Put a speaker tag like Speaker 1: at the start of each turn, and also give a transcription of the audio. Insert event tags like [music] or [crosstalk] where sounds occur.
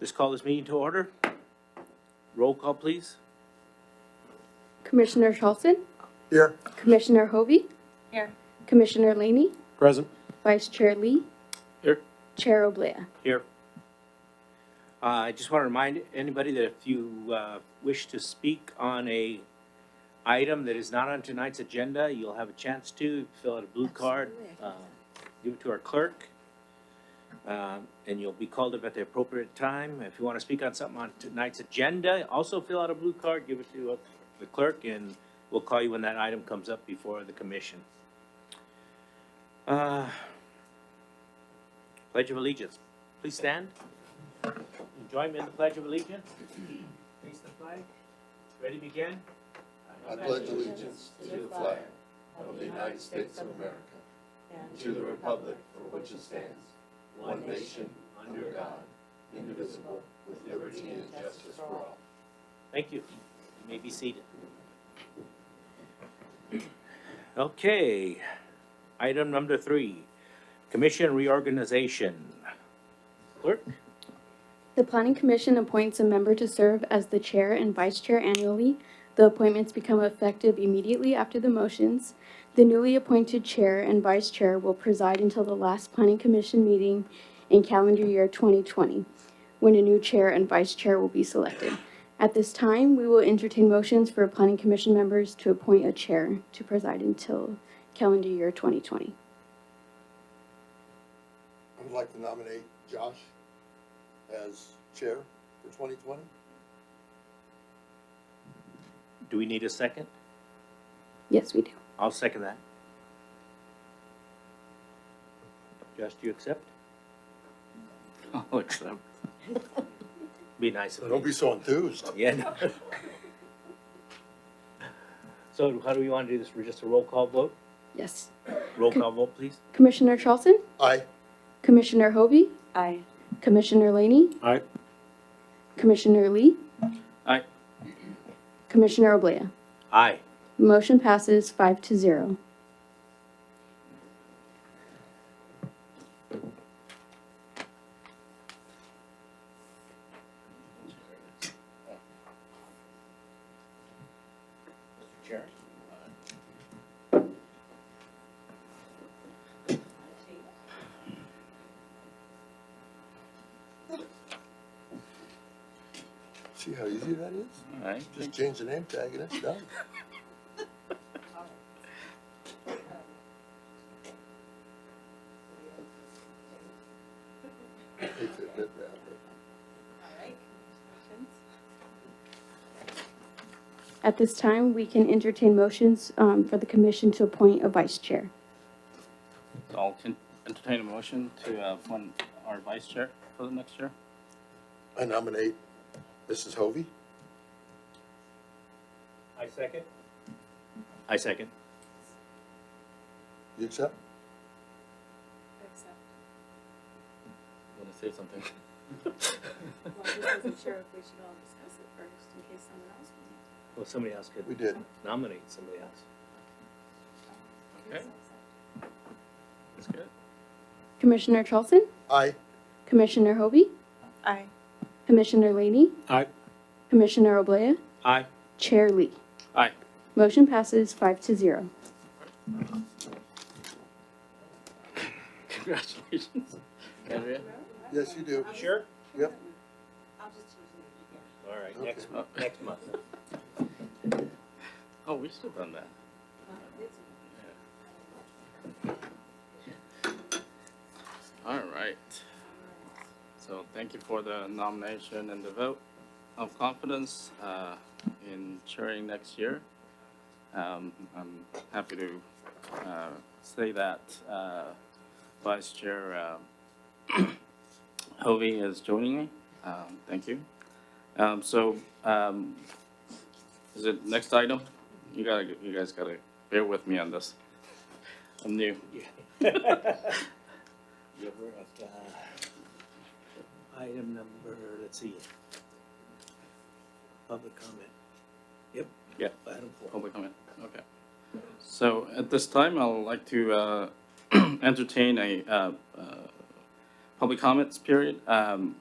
Speaker 1: Just call this meeting to order. Roll call, please.
Speaker 2: Commissioner Charleston?
Speaker 3: Here.
Speaker 2: Commissioner Hovey?
Speaker 4: Here.
Speaker 2: Commissioner Laney?
Speaker 3: Present.
Speaker 2: Vice Chair Lee?
Speaker 1: Here.
Speaker 2: Chair Oblea?
Speaker 1: Here. Uh, I just want to remind anybody that if you uh, wish to speak on a item that is not on tonight's agenda, you'll have a chance to fill out a blue card, uh, give it to our clerk, um, and you'll be called up at the appropriate time. If you want to speak on something on tonight's agenda, also fill out a blue card, give it to uh, the clerk, and we'll call you when that item comes up before the commission. Uh, Pledge of Allegiance. Please stand. And Join me in the Pledge of Allegiance. Face the flag. Ready, begin?
Speaker 3: I pledge allegiance to the flag of the United States of America and to the republic for which it stands, one nation, under God, indivisible, with liberty and justice for all.
Speaker 1: Thank you. You may be seated. Okay, item number three, Commission reorganization. Clerk?
Speaker 2: The Planning Commission appoints a member to serve as the chair and vice chair annually. The appointments become effective immediately after the motions. The newly appointed chair and vice chair will preside until the last Planning Commission meeting in calendar year 2020, when a new chair and vice chair will be selected. At this time, we will entertain motions for Planning Commission members to appoint a chair to preside until calendar year 2020.
Speaker 3: I would like to nominate Josh as chair for twenty twenty.
Speaker 1: Do we need a second?
Speaker 2: Yes, we do.
Speaker 1: I'll second that. Josh, do you accept?
Speaker 5: [laughs] I'll accept.
Speaker 1: Be nice if you
Speaker 3: Don't be so enthused.
Speaker 1: Yeah. no. [laughs] So how do we want to do this? We're just a roll call vote?
Speaker 2: Yes.
Speaker 1: Roll call vote, please?
Speaker 2: Commissioner Charleston?
Speaker 3: Aye.
Speaker 2: Commissioner Hovey?
Speaker 4: Aye.
Speaker 2: Commissioner Laney?
Speaker 1: Aye.
Speaker 2: Commissioner Lee?
Speaker 5: Aye.
Speaker 2: Commissioner Oblea?
Speaker 1: Aye.
Speaker 2: Motion passes five to zero.
Speaker 1: Mr. Chair.
Speaker 3: See how easy that is?
Speaker 5: All right.
Speaker 3: Just change the name tag and it's [laughs] done. Hate to admit that, but-
Speaker 2: At this time, we can entertain motions um, for the commission to appoint a vice chair.
Speaker 5: So I'll con- entertain a motion to uh, appoint our vice chair for the next year.
Speaker 3: I nominate Mrs. Hovey.
Speaker 1: I second. I second.
Speaker 3: You accept?
Speaker 5: Want to say something?
Speaker 4: Well, I just wasn't sure if we should all discuss it first in case someone else wants
Speaker 1: Well, somebody else
Speaker 3: We
Speaker 1: could
Speaker 3: did.
Speaker 1: nominate somebody else.
Speaker 4: to.
Speaker 5: Okay, that's good.
Speaker 2: Commissioner Charleston?
Speaker 3: Aye.
Speaker 2: Commissioner Hovey?
Speaker 4: Aye.
Speaker 2: Commissioner Laney?
Speaker 1: Aye.
Speaker 2: Commissioner Oblea?
Speaker 1: Aye.
Speaker 2: Chair Lee?
Speaker 5: Aye.
Speaker 2: Motion passes five to zero.
Speaker 5: Congratulations. Andrea?
Speaker 3: Yes, you do.
Speaker 1: Sure?
Speaker 3: Yep.
Speaker 1: All right,
Speaker 3: Okay.
Speaker 1: next, month. next month.
Speaker 5: Oh, we should have done that.
Speaker 4: Uh-huh.
Speaker 5: All right. So thank you for the nomination and the vote of confidence uh, in chairing next year. Um, I'm happy to uh, say that uh, Vice Chair uh, [clears throat] Hovey is joining me. Um, Thank you. Um, So um, is it next item? You gotta, you guys gotta bear with me on this. I'm new.
Speaker 1: Yeah, we're at, uh, Item number, let's see. Public comment. Yep.
Speaker 5: Yeah. Oh,
Speaker 1: Item four.
Speaker 5: Public comment, okay. So at this time, I would like to [clears throat] uh, entertain a uh, uh, public comments period. Um,